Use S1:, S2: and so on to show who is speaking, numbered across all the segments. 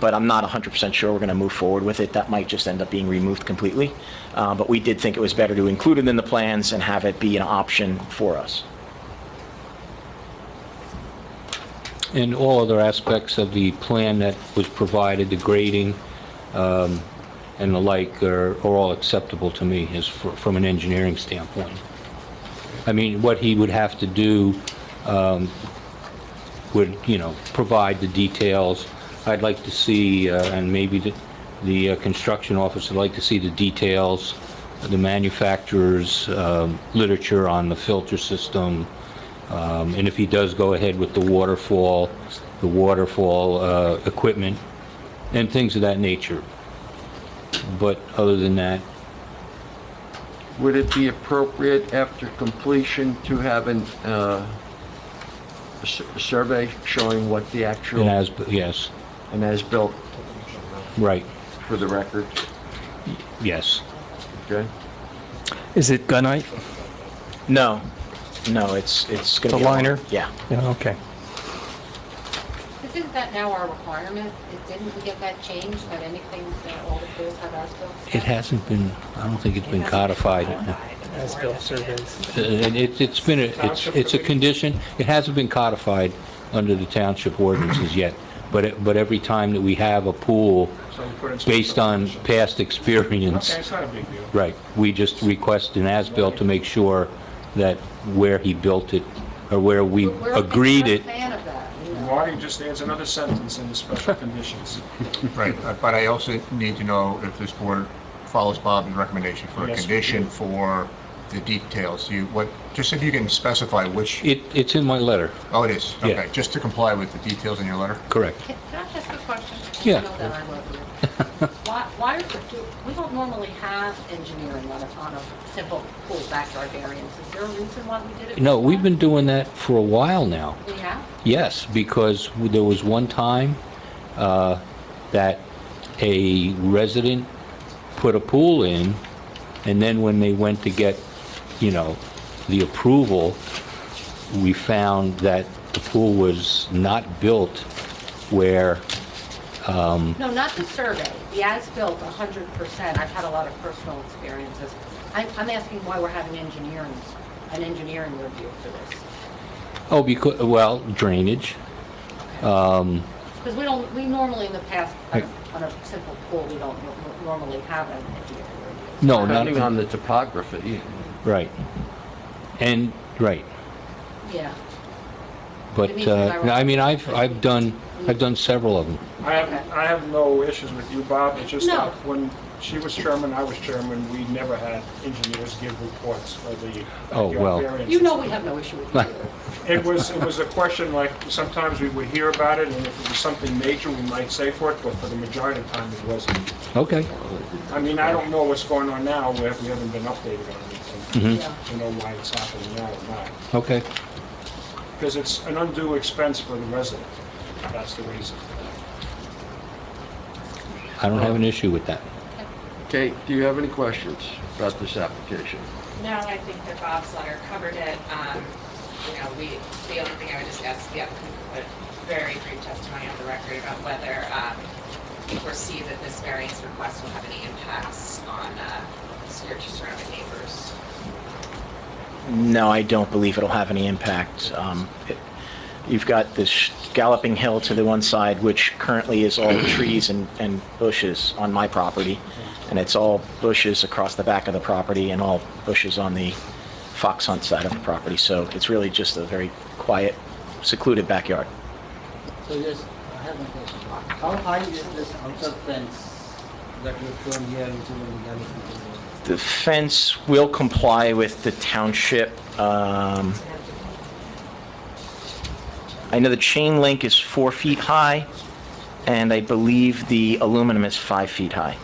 S1: but I'm not 100% sure we're going to move forward with it. That might just end up being removed completely. Uh, But we did think it was better to include it in the plans and have it be an option for us.
S2: And all other aspects of the plan that was provided, the grading um, and the like, are are all acceptable to me as fr- from an engineering standpoint. I mean, what he would have to do um, would, you know, provide the details. I'd like to see, uh, and maybe the- the uh, construction office would like to see the details, the manufacturer's um, literature on the filter system, um, And if he does go ahead with the waterfall, the waterfall uh, equipment, and things of that nature. But other than that,
S3: Would it be appropriate after completion to have an, uh, a su- a survey showing what the
S2: and
S3: actual,
S2: as, yes,
S3: and as-built
S2: right,
S3: for the record,
S2: yes.
S3: okay?
S4: Is it gunite?
S1: No, no, it's, it's going to be...
S4: The
S1: a-
S4: liner?
S1: Yeah.
S4: Yeah, okay.
S5: Isn't that now our requirement? It- Didn't we get that changed, that anything that all the pools have as-built?
S2: It hasn't been, I don't think it's been codified. Uh,
S6: As-built surveys.
S2: and it- It's been, a- it's it's a condition, it hasn't been codified under the township ordinances yet, but it- but every time that we have a pool, based on past experience,
S6: Okay, it's not a big deal.
S2: Right, we just request an as-built to make sure that where he built it, or where we
S5: We're- we're-
S2: agreed it,
S5: We're a fan of that, you know.
S6: Marty just adds another sentence in the special conditions.
S7: Right, uh, but I also need to know if this board follows Bob's recommendation for a
S6: Yes, we
S7: condition
S6: do.
S7: for the details. You, what, just if you can specify which,
S2: it, it's in my letter,
S7: oh, it is,
S2: Yeah.
S7: okay, just to comply with the details in your letter?
S2: correct.
S5: Can can I ask a question?
S2: Yeah.
S5: I know that I love you. Why, why, are the- do- we don't normally have engineering on a, on a simple pool backyard variance. Is there a reason why we did it?
S2: No,
S5: this
S2: we've been
S5: time?
S2: doing that for a while now.
S5: We have?
S2: Yes, because there was one time uh, that a resident put a pool in, and then when they went to get, you know, the approval, we found that the pool was not built where
S5: No, not the survey, the as-built, 100%. I've had a lot of personal experiences. I'm, I'm asking why we're having engineering, an engineering review for this.
S2: Oh, because, well, drainage. Um,
S5: Because we don't, we normally in the past, on
S2: Right.
S5: a- on a simple pool, we don't nor- normally have an engineering review.
S2: No,
S3: Depending
S2: not,
S3: on the topography,
S2: right. And, right,
S5: Yeah.
S2: but, uh, I mean, I've, I've done, I've done several of them.
S6: I have, I have no issues with you, Bob, it's just
S5: No.
S6: that when she was chairman, I was chairman, we never had engineers give reports for the
S2: Oh, well.
S6: backyard variances.
S5: You know we have no issue with you either.
S6: It was, it was a question like, sometimes we would hear about it, and if it was something major, we might say for it, but for the majority of the time, it wasn't.
S2: Okay.
S6: I mean, I don't know what's going on now, we haven't we haven't been updated on anything
S2: Mhm.
S5: Yeah.
S6: to know why it's happening now or not.
S2: Okay.
S6: Because it's an undue expense for the resident, that's the reason.
S2: I don't have an issue with that.
S3: Kate, do you have any questions about this application?
S8: No, I think that Bob's letter covered it. Um, You know, we, the only thing I would just ask the applicant to put very brief testimony on the record about whether um, you foresee that this variance request will have any impacts on uh, your surrounding neighbors.
S1: No, I don't believe it'll have any impact. Um, it- You've got this galloping hill to the one side, which currently is all trees and and bushes on my property, and it's all bushes across the back of the property and all bushes on the fox hunt side of the property. So it's really just a very quiet, secluded backyard.
S9: So yes, I have a question. How high is this outer fence that you've shown here, which is on the gallery?
S1: The fence will comply with the township. um, I know the chain link is four feet high, and I believe the aluminum is five feet high.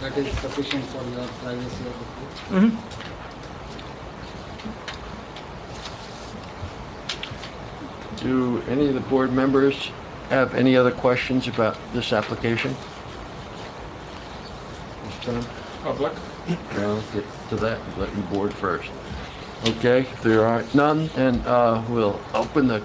S9: That is sufficient for your privacy of the pool?
S3: Do any of the board members have any other questions about this application? Mr. Dunham?
S6: Public?
S3: Well, get to that, let you board first. Okay, if there are none, and uh, we'll open the